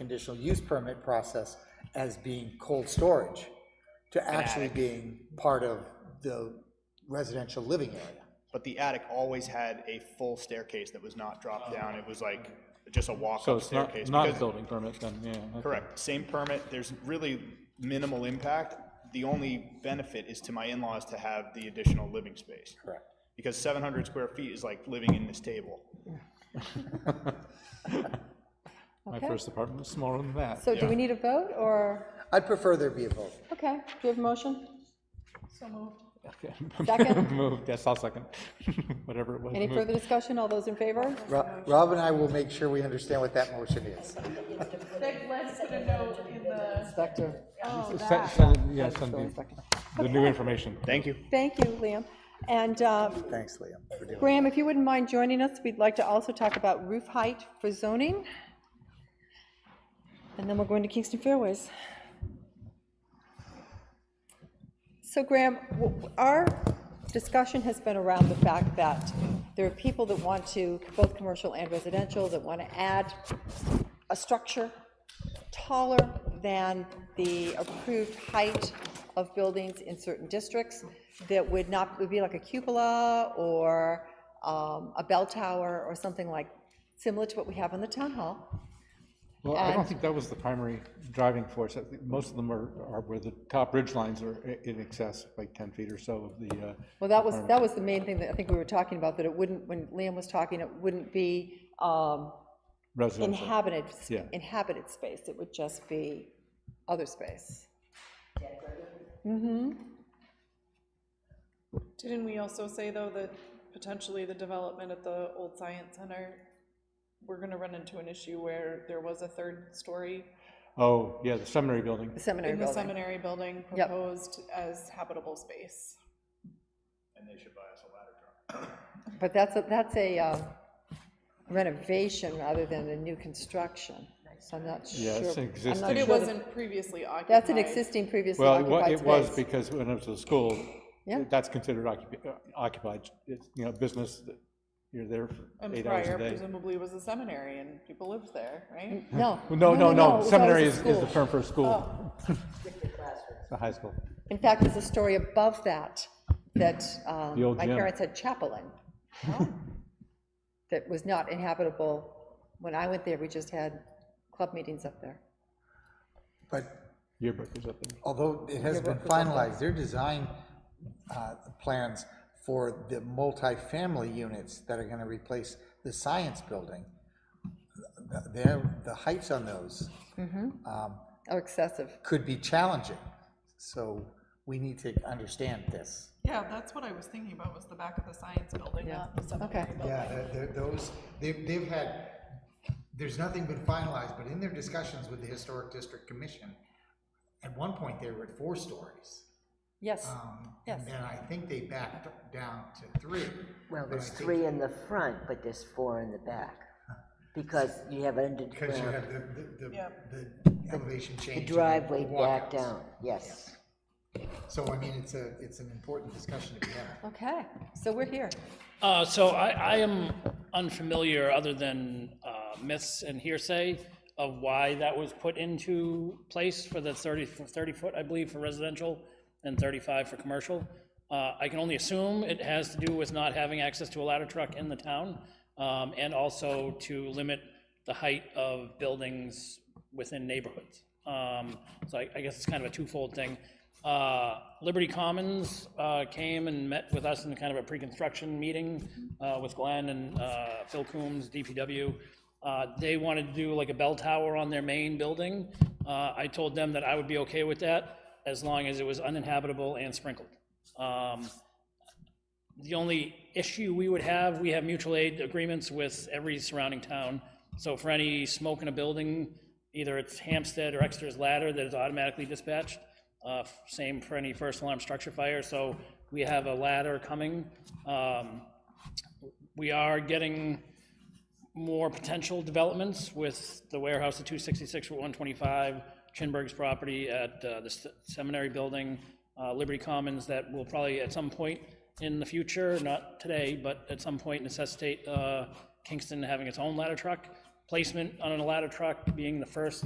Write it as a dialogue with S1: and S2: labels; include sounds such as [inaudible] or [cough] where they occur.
S1: conditional use permit process as being cold storage to actually being part of the residential living area.
S2: But the attic always had a full staircase that was not dropped down. It was like just a
S3: So
S2: walk-up
S3: it's not,
S2: staircase.
S3: not a
S2: because-
S3: building permit then, yeah. okay.
S2: Correct, same permit, there's really minimal impact. The only benefit is to my in-laws to have the additional living space.
S1: Correct.
S2: Because 700 square feet is like living in this table.
S3: My
S4: Okay.
S3: first apartment was smaller than that.
S4: So do we need a vote, or,
S1: I'd prefer there be a vote.
S4: okay, do you have a motion?
S3: Okay. [laughs]
S4: Second.
S3: Moved, yes, I'll second, [laughs] whatever it was.
S4: Any
S3: moved.
S4: further discussion, all those in favor?
S1: Ro- Rob and I will make sure we understand what that motion is.
S5: Beg Len put a note in the,
S6: Inspector,
S4: Oh,
S3: Se-
S4: that.
S3: send it- Yeah, send
S6: building
S3: the,
S6: inspector.
S3: the new information.
S2: Thank you.
S4: Thank you, Liam. And um,
S1: Thanks, Liam, for doing that.
S4: Graham, if you wouldn't mind joining us, we'd like to also talk about roof height for zoning. And then we're going to Kingston Fairways. So Graham, w- w- our discussion has been around the fact that there are people that want to, both commercial and residential, that want to add a structure taller than the approved height of buildings in certain districts that would not, would be like a cupola or um, a bell tower or something like, similar to what we have on the town hall.
S3: Well, I don't
S4: And-
S3: think that was the primary driving force. I think Most of them are, are where the top ridge lines are i- in excess, like 10 feet or so of the. uh,
S4: Well, that was, that was the main thing that I think we were talking about, that it wouldn't, when Liam was talking, it wouldn't be um,
S3: Residential.
S4: inhabited,
S3: Yeah.
S4: inhabited space, it would just be other space.
S5: didn't we also say, though, that potentially the development at the old science center, we're gonna run into an issue where there was a third story
S3: Oh, yeah, the seminary building.
S4: The seminary
S5: in the
S4: building.
S5: seminary building
S4: Yep.
S5: proposed as habitable space.
S4: But that's, a that's a uh, renovation rather than a new construction, so I'm not sure.
S3: Yeah, it's an
S4: I'm not
S3: existing-
S4: sure
S5: But it
S4: that-
S5: wasn't previously occupied.
S4: That's an existing previously
S3: Well, it wa-
S4: occupied
S3: it was
S4: space.
S3: because when it was a school,
S4: Yeah.
S3: that's considered occupi- uh, occupied, it's, you know, business, that you're there for
S5: And
S3: eight hours
S5: prior
S3: a day.
S5: presumably was a seminary and people lived there, right?
S4: No.
S3: Well, No, no,
S4: it
S3: no,
S4: was
S3: seminary
S4: always
S3: is,
S4: a
S3: is the
S4: school. Oh.
S3: term for a school. [laughs] It's a high school.
S4: In fact, there's a story above that, that um,
S3: The old
S4: my
S3: gym.
S4: parents had chapel in. That was not inhabitable. When I went there, we just had club meetings up there.
S1: But
S3: Yearbook is up there.
S1: although it has been finalized, their design uh, plans for the multifamily units that are going to replace the science building, th- their, the heights on those
S4: Oh, excessive.
S1: could be challenging. So we need to understand this.
S5: Yeah, that's what I was thinking about, was the back of the science building,
S4: Yeah.
S5: not the seminary
S4: Okay.
S5: building.
S1: Yeah, they're- they're- those, they've, they've had, there's nothing been finalized, but in their discussions with the Historic District Commission, at one point, they were at four stories.
S4: Yes.
S3: Ah.
S1: Um,
S4: Yes.
S1: And I think they backed down to three. But
S6: Well,
S1: I
S6: there's
S1: think-
S6: three in the front, but there's four in
S1: [laughs]
S6: the back, because you have
S1: Because you
S6: underground,
S1: have the, the-
S5: Yeah.
S1: the, the elevation change. and
S6: the driveway back
S1: walkouts.
S6: down, yes.
S1: So I mean, it's a, it's an important discussion to be had.
S4: Okay, so we're here.
S7: Uh, So I, I am unfamiliar, other than uh, myths and hearsay, of why that was put into place for the 30, 30-foot, I believe, for residential and 35 for commercial. Uh, I can only assume it has to do with not having access to a ladder truck in the town, um, and also to limit the height of buildings within neighborhoods. Um, So I I guess it's kind of a twofold thing. Uh, Liberty Commons uh, came and met with us in kind of a pre-construction meeting uh, with Glenn and uh, Phil Coombs, DPW. Uh, They wanted to do like a bell tower on their main building. Uh, I told them that I would be okay with that as long as it was uninhabitable and sprinkled. Um, the only issue we would have, we have mutual aid agreements with every surrounding town. So for any smoke in a building, either it's Hampstead or Exeter's Ladder that is automatically dispatched. Uh, Same for any first alarm structure fire, so we have a ladder coming. Um, We are getting more potential developments with the warehouse at 266 Route 125, Chinburg's property at uh, the s- Seminary Building, uh, Liberty Commons, that will probably at some point in the future, not today, but at some point necessitate uh, Kingston having its own ladder truck. Placement on a ladder truck being the first